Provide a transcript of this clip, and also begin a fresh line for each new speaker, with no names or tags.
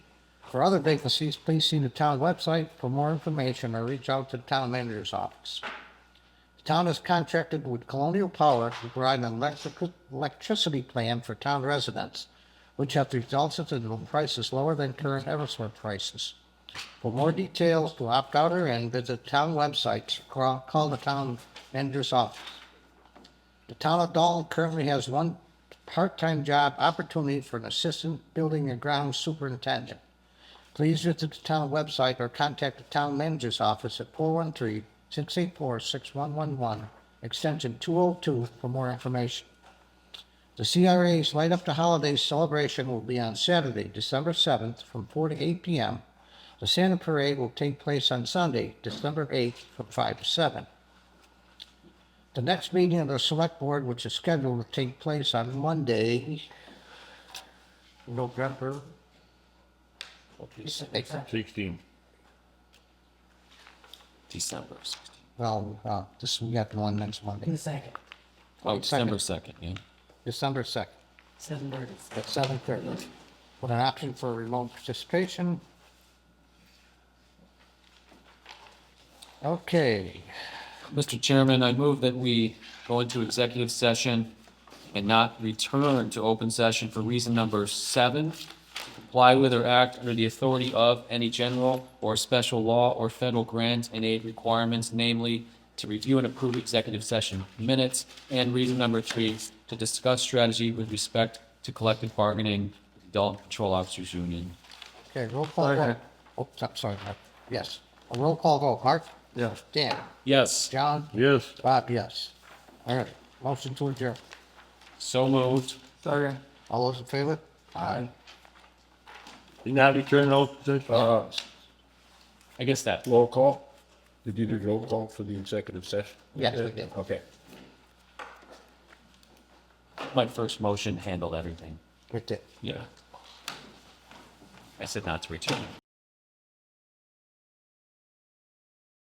For other vacancies, please see the town website for more information or reach out to the town manager's office. The town is contracted with Colonial Power to provide an electric, electricity plan for town residents, which have resulted in prices lower than current Eversource prices. For more details to opt out or in, visit town websites, call, call the town manager's office. The town of Dalton currently has one part-time job opportunity for an assistant building and ground superintendent. Please visit the town website or contact the town manager's office at 413-684-6111, extension two oh two for more information. The CRA's Light Up the Holidays celebration will be on Saturday, December seventh, from four to eight P M. The Santa Parade will take place on Sunday, December eighth, from five to seven. The next meeting of the select board, which is scheduled to take place on Monday, November.
Sixteen.
December 16th.
Well, uh, this, we got the one next Monday,
The second,
Oh,
Second.
December 2nd, yeah.
December second,
seven thirty.
at seven thirty. With an option for remote participation. Okay,
Mr. Chairman, I move that we go into executive session and not return to open session for reason number seven, comply with or act under the authority of any general or special law or federal grant and aid requirements, namely to review and approve executive session minutes, and reason number three, to discuss strategy with respect to collective bargaining, with the Dalton Patrol Officers Union.
okay, roll call vote. Oh, I'm sorry, Mark. yes, a roll call vote, Mark?
Yeah.
Dan?
Yes,
John?
Yes.
Bob, yes. All right, motion to adjourn.
so moved.
Sorry.
All those in favor? Aye.
Did not return open session?
Uh,
I guess that.
roll call? Did you do roll call for the executive session?
Yes, we did.
Okay.
My first motion handled everything.
Good day.
Yeah. I said not to return.